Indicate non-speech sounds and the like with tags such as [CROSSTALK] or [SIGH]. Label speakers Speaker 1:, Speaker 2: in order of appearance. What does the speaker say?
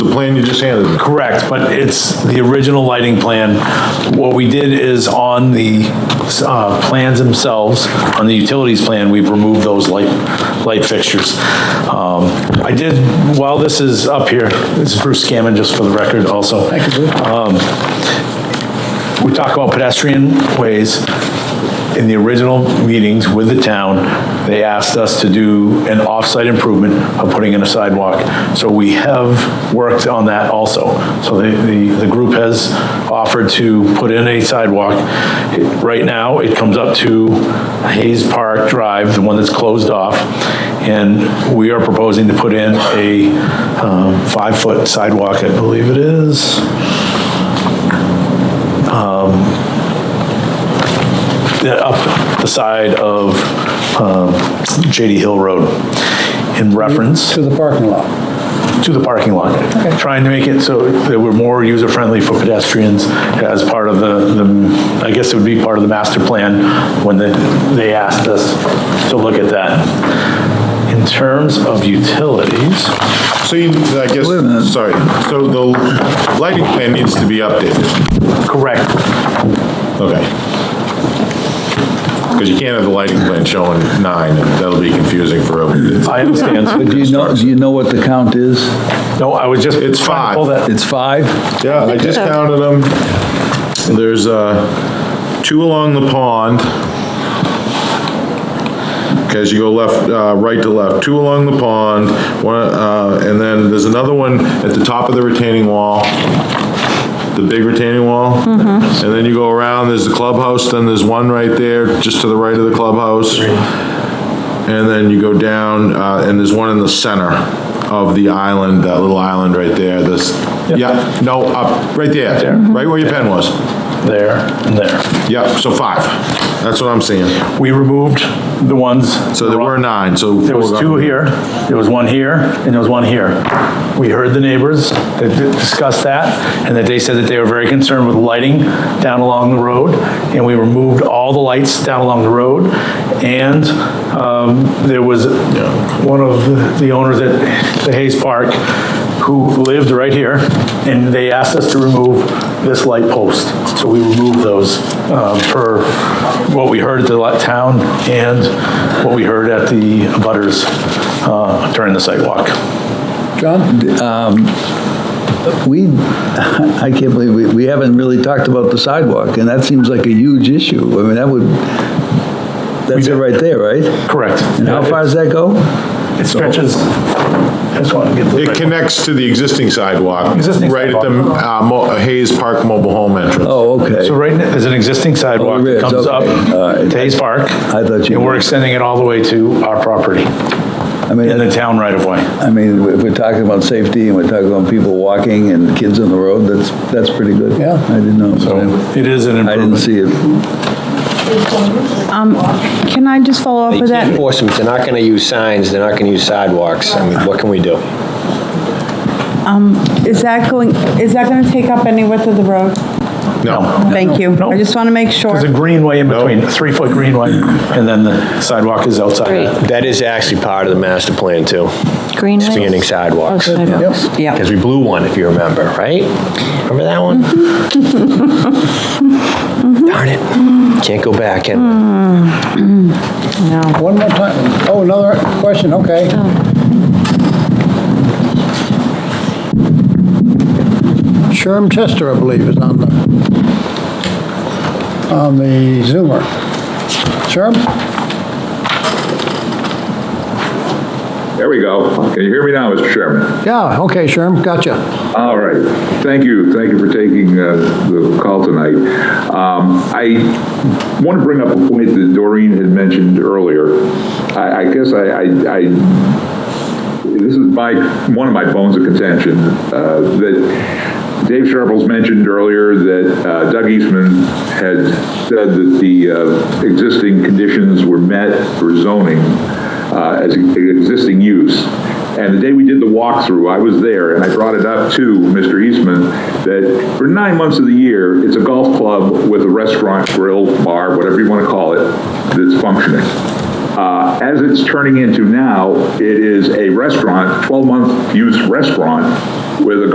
Speaker 1: the plan you just handed me.
Speaker 2: Correct, but it's the original lighting plan. What we did is on the uh, plans themselves, on the utilities plan, we've removed those light, light fixtures. Um, I did, while this is up here, this is Bruce Scammon, just for the record also. Thank you, we talk about pedestrian ways. In the original meetings with the town, they asked us to do an off-site improvement of putting in a sidewalk. So we have worked on that also. So the, the, the group has offered to put in a sidewalk. Right now, it comes up to Hayes Park Drive, the one that's closed off. And we are proposing to put in a um, five-foot sidewalk, I believe it is. the- up the side of um, JD Hill Road in reference
Speaker 3: To the parking lot.
Speaker 2: to the parking lot. Trying to make it so that we're more user-friendly for pedestrians as part of the, the I guess it would be part of the master plan when they, they asked us to look at that. In terms of utilities,
Speaker 1: So you, I guess,
Speaker 3: Wait a minute.
Speaker 1: sorry, so the lighting plan needs to be updated,
Speaker 2: correct,
Speaker 1: okay? Because you can't have the lighting plan showing nine, and that'll be confusing for everyone.
Speaker 2: I
Speaker 1: [LAUGHS]
Speaker 2: understand.
Speaker 3: But do you know, do you know what the count is?
Speaker 2: No, I was just.
Speaker 1: It's five.
Speaker 2: Pull that-
Speaker 3: It's five?
Speaker 1: Yeah, I just counted them. There's, uh, two along the pond. Okay, as you go left, uh, right to left, two along the pond, one, uh, and then there's another one at the top of the retaining wall, the big retaining wall.
Speaker 2: Mm-hmm.
Speaker 1: And then you go around, there's the clubhouse, then there's one right there, just to the right of the clubhouse. And then you go down, uh, and there's one in the center of the island, that little island right there, this, yeah, no, up, right there, right where your pen was.
Speaker 2: There and there.
Speaker 1: Yep, so five, that's what I'm seeing.
Speaker 2: We removed the ones.
Speaker 1: So there were nine, so.
Speaker 2: There was two here, there was one here, and there was one here. We heard the neighbors that discussed that, and that they said that they were very concerned with lighting down along the road, and we removed all the lights down along the road, and um, there was one of the owners at the Hayes Park who lived right here, and they asked us to remove this light post. So we removed those um, per what we heard at the li- town and what we heard at the butters uh, during the site walk.
Speaker 3: John? um, We, [LAUGHS] I can't believe, we we haven't really talked about the sidewalk, and that seems like a huge issue. I mean, that would, that's it right there, right?
Speaker 2: Correct.
Speaker 3: And how far does that go?
Speaker 2: It stretches, I just want to get
Speaker 1: It
Speaker 2: the,
Speaker 1: connects to the existing sidewalk.
Speaker 2: Existing
Speaker 1: Right at the uh, Mo- Hayes Park Mobile Home entrance.
Speaker 3: Oh,
Speaker 2: so
Speaker 3: okay.
Speaker 2: right, now, there's an existing sidewalk
Speaker 3: there
Speaker 2: that
Speaker 3: is,
Speaker 2: comes up
Speaker 3: okay. All right.
Speaker 2: to Hayes Park.
Speaker 3: I thought you-
Speaker 2: And we're extending it all the way to our property
Speaker 3: I mean,
Speaker 2: in the town right of way.
Speaker 3: I mean, we- we're talking about safety, and we're talking about people walking and kids on the road, that's, that's pretty good. Yeah. I didn't know.
Speaker 2: It is an
Speaker 3: I didn't
Speaker 2: improvement.
Speaker 3: see it.
Speaker 4: Can I just follow up
Speaker 5: They
Speaker 4: with
Speaker 5: can't
Speaker 4: that?
Speaker 5: force them, they're not gonna use signs, they're not gonna use sidewalks, I mean, what can we do?
Speaker 4: Is that going, is that going to take up any width of the road?
Speaker 1: No,
Speaker 4: Thank you.
Speaker 2: Oh, No.
Speaker 4: I just want to make sure.
Speaker 2: There's a greenway in between, a three-foot greenway, and then the sidewalk is outside.
Speaker 6: Great.
Speaker 5: That is actually part of the master plan too,
Speaker 6: Greenway?
Speaker 5: expanding sidewalks.
Speaker 6: Oh, sidewalks. Yeah.
Speaker 5: Because we blew one, if you remember, right? Remember that one? Darn it, can't go back and,
Speaker 7: One more time. Oh, another question, okay. Sherm Chester, I believe, is on the, on the Zoomer. Sherm?
Speaker 8: There we go. Can you hear me now, Mr. Chairman?
Speaker 7: Yeah, okay, Sherm, gotcha.
Speaker 8: All right. Thank you. Thank you for taking uh, the call tonight. Um, I want to bring up a point that Doreen had mentioned earlier. I I guess I- I, I this is my, one of my bones of contention, uh, that Dave Sharples mentioned earlier that uh, Doug Eastman had said that the uh, existing conditions were met for zoning uh, as existing use. And the day we did the walkthrough, I was there, and I brought it up to Mr. Eastman, that for nine months of the year, it's a golf club with a restaurant, grill, bar, whatever you want to call it, that's functioning. Uh, As it's turning into now, it is a restaurant, 12-month use restaurant with a